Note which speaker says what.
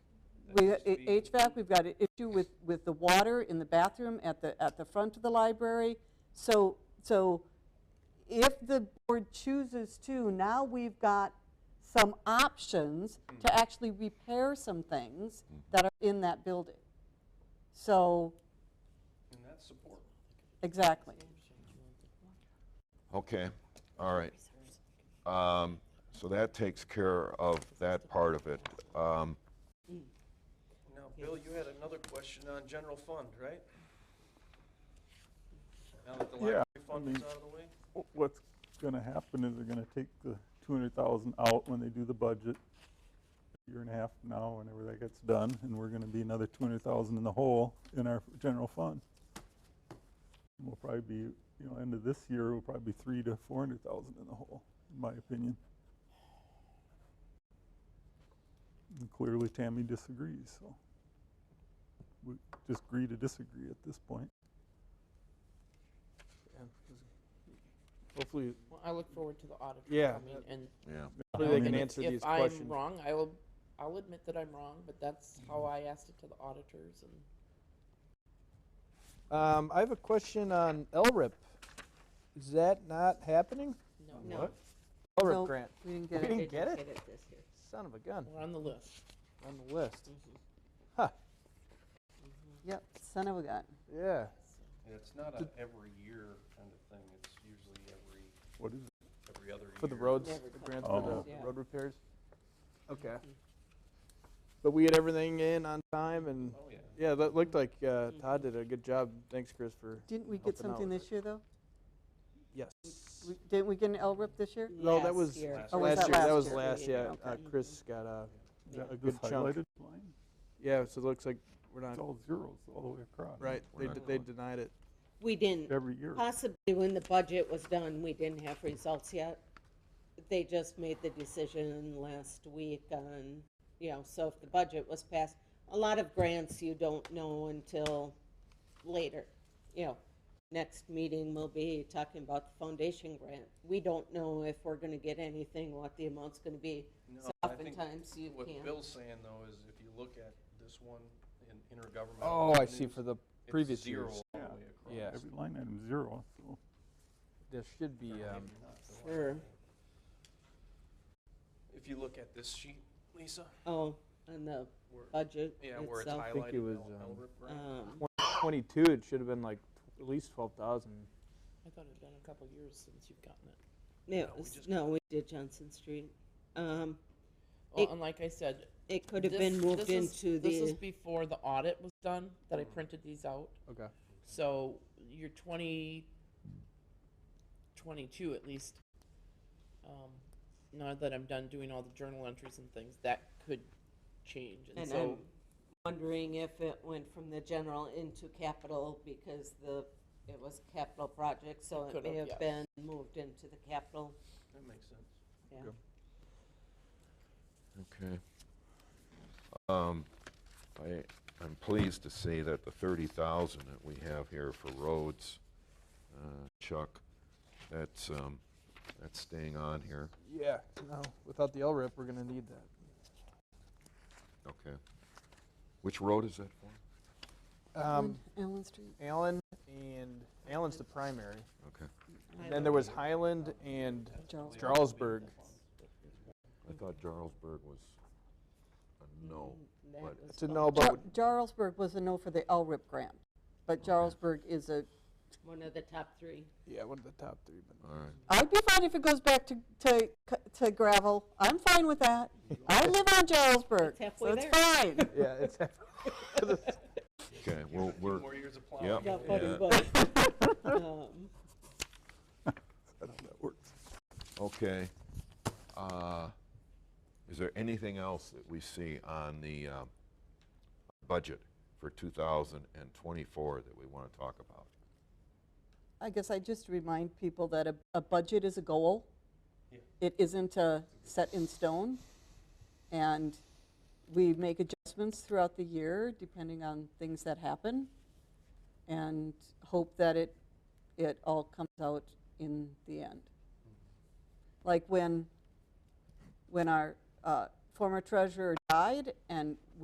Speaker 1: We-
Speaker 2: needs to
Speaker 1: i-
Speaker 2: be-
Speaker 1: HVAC, we've got an issue with, with the water in the bathroom at the, at the front of the library. So, so if the board chooses to, now we've got some options
Speaker 2: Hmm.
Speaker 1: to actually repair some things that are in that building. So,
Speaker 2: And that's support.
Speaker 1: exactly.
Speaker 3: Okay, all right. Um, So that takes care of that part of it. Um,
Speaker 2: Now, Bill, you had another question on general fund, right? Now that the
Speaker 4: Yeah,
Speaker 2: library fund
Speaker 4: I
Speaker 2: is
Speaker 4: mean-
Speaker 2: out of the way?
Speaker 4: Wh- What's going to happen is they're going to take the 200,000 out when they do the budget, a year and a half from now, whenever that gets done, and we're going to be another 200,000 in the hole in our general fund. And We'll probably be, you know, end of this year, we'll probably be three to 400,000 in the hole, in my opinion. And Clearly Tammy disagrees, so we just agree to disagree at this point.
Speaker 5: Hopefully,
Speaker 6: Well, I look forward to the auditor
Speaker 5: Yeah.
Speaker 6: coming and
Speaker 3: Yeah,
Speaker 5: hopefully
Speaker 4: I
Speaker 5: they can
Speaker 4: mean,
Speaker 5: answer these
Speaker 6: if I'm
Speaker 5: questions.
Speaker 6: wrong, I will, I'll admit that I'm wrong, but that's how I asked it to the auditors and.
Speaker 5: Um, I have a question on LRIP. Is that not happening?
Speaker 6: No.
Speaker 5: What? LRIP
Speaker 1: Nope,
Speaker 5: grant.
Speaker 1: We didn't
Speaker 5: We
Speaker 1: get it.
Speaker 5: didn't get it.
Speaker 7: Get it this year.
Speaker 5: Son of a gun.
Speaker 6: We're on the list.
Speaker 5: On the list.
Speaker 6: Mhm.
Speaker 5: Huh.
Speaker 1: Yep, son of a gun.
Speaker 5: Yeah.
Speaker 2: Yeah, It's not a every year kind of thing, it's usually every,
Speaker 4: What is it?
Speaker 2: every other year.
Speaker 5: For the roads,
Speaker 6: Never
Speaker 5: the
Speaker 6: cut
Speaker 5: grants
Speaker 4: Oh.
Speaker 5: for the
Speaker 6: Yeah.
Speaker 5: road repairs. Okay. But we had everything in on time, and
Speaker 2: Oh, yeah.
Speaker 5: yeah, that looked like uh, Todd did a good job. Thanks, Chris, for
Speaker 1: Didn't we get
Speaker 5: Helping out
Speaker 1: something
Speaker 5: with
Speaker 1: this year, though?
Speaker 5: yes.
Speaker 1: We- Didn't we get an LRIP this year?
Speaker 5: No, that
Speaker 7: Last
Speaker 5: was
Speaker 7: year.
Speaker 2: Oh,
Speaker 1: was
Speaker 5: last
Speaker 1: that
Speaker 5: year.
Speaker 1: last
Speaker 5: That was
Speaker 1: year?
Speaker 5: last. Yeah,
Speaker 1: Okay.
Speaker 5: uh, Chris got a
Speaker 4: Is that
Speaker 5: a
Speaker 4: this
Speaker 5: good chunk.
Speaker 4: highlighted line?
Speaker 5: Yeah, so it looks like we're not
Speaker 4: It's all zeros all the way across.
Speaker 5: right.
Speaker 3: We're
Speaker 5: They
Speaker 3: not
Speaker 5: d- they
Speaker 3: going.
Speaker 5: denied it.
Speaker 7: We didn't,
Speaker 4: Every year.
Speaker 7: possibly when the budget was done, we didn't have results yet. They just made the decision last week on, you know, so if the budget was passed, a lot of grants you don't know until later. You know, next meeting will be talking about the foundation grant. We don't know if we're gonna get anything, what the amount's gonna be.
Speaker 2: No,
Speaker 7: So
Speaker 2: I think
Speaker 7: oftentimes you
Speaker 2: What
Speaker 7: can't.
Speaker 2: Bill's saying, though, is if you look at this one in intergovernmental.
Speaker 5: Oh, I see.
Speaker 2: revenues,
Speaker 5: For the
Speaker 2: it's
Speaker 5: previous
Speaker 2: zero
Speaker 5: years,
Speaker 2: all the
Speaker 4: Yeah.
Speaker 2: way across.
Speaker 5: Yeah.
Speaker 4: Every line item zero, so
Speaker 5: there should be. Um,
Speaker 7: Sure.
Speaker 2: If you look at this sheet, Lisa,
Speaker 7: Oh, on the
Speaker 2: where,
Speaker 7: budget
Speaker 2: yeah, where it's
Speaker 7: itself.
Speaker 5: think
Speaker 2: highlighted,
Speaker 5: it was,
Speaker 2: L-
Speaker 5: um,
Speaker 2: LRIP grant.
Speaker 7: Um,
Speaker 5: 22. It should have been like t- at least 12,000.
Speaker 6: I thought it'd been a couple years since you've gotten it.
Speaker 7: Yeah,
Speaker 2: No,
Speaker 7: it
Speaker 2: we
Speaker 7: was-
Speaker 2: just-
Speaker 7: no, we did Johnson Street. Um,
Speaker 6: Well,
Speaker 7: It-
Speaker 6: Oh, and like I said,
Speaker 7: it could have
Speaker 6: this-
Speaker 7: been moved
Speaker 6: this is-
Speaker 7: into
Speaker 6: This is
Speaker 7: the,
Speaker 6: before the audit was done, that I printed these out.
Speaker 5: Okay.
Speaker 6: So your 20, 22 at least, um, now that I'm done doing all the journal entries and things, that could change. And,
Speaker 7: and I'm
Speaker 6: so,
Speaker 7: wondering if it went from the general into capital because the, it was capital project, so
Speaker 6: It
Speaker 7: it may
Speaker 6: could've,
Speaker 7: have been moved into the capital.
Speaker 2: That makes sense.
Speaker 7: Yeah.
Speaker 5: Good.
Speaker 3: okay. Um, I, I'm pleased to see that the 30,000 that we have here for roads, uh, Chuck, that's, um, that's staying on here.
Speaker 5: Yeah. No. Without the LRIP, we're gonna need that.
Speaker 3: Okay. Which road is that for?
Speaker 5: Um,
Speaker 1: Allen Street.
Speaker 5: Allen and Allen's the primary.
Speaker 3: Okay.
Speaker 5: And then there was Highland and
Speaker 1: Charles.
Speaker 5: Jarlsberg.
Speaker 3: I thought Jarlsberg was a no.
Speaker 7: That
Speaker 3: But-
Speaker 7: was
Speaker 5: To
Speaker 7: the-
Speaker 5: know about
Speaker 1: Jar- Jarlsberg was a no for the LRIP grant, but Jarlsberg is a,
Speaker 7: One of the top three.
Speaker 5: yeah, one of the top three. But
Speaker 3: All right.
Speaker 1: I'd be fine if it goes back to, to, c- to gravel. I'm fine with that. I live on Jarlsberg,
Speaker 7: It's
Speaker 1: so
Speaker 7: halfway
Speaker 1: it's
Speaker 7: there.
Speaker 1: fine.
Speaker 5: yeah, it's
Speaker 3: Okay, well,
Speaker 2: Two
Speaker 3: we're,
Speaker 2: more years of plowing.
Speaker 3: yeah.
Speaker 7: Yeah, funny,
Speaker 3: yeah.
Speaker 7: but, um,
Speaker 4: I don't know how that works.
Speaker 3: Okay. Uh, Is there anything else that we see on the uh, budget for 2024 that we want to talk about?
Speaker 1: I guess I just remind people that a, a budget is a goal.
Speaker 2: Yeah.
Speaker 1: It isn't a set in stone. And we make adjustments throughout the year depending on things that happen and hope that it, it all comes out in the end. Like when, when our uh, former treasurer died and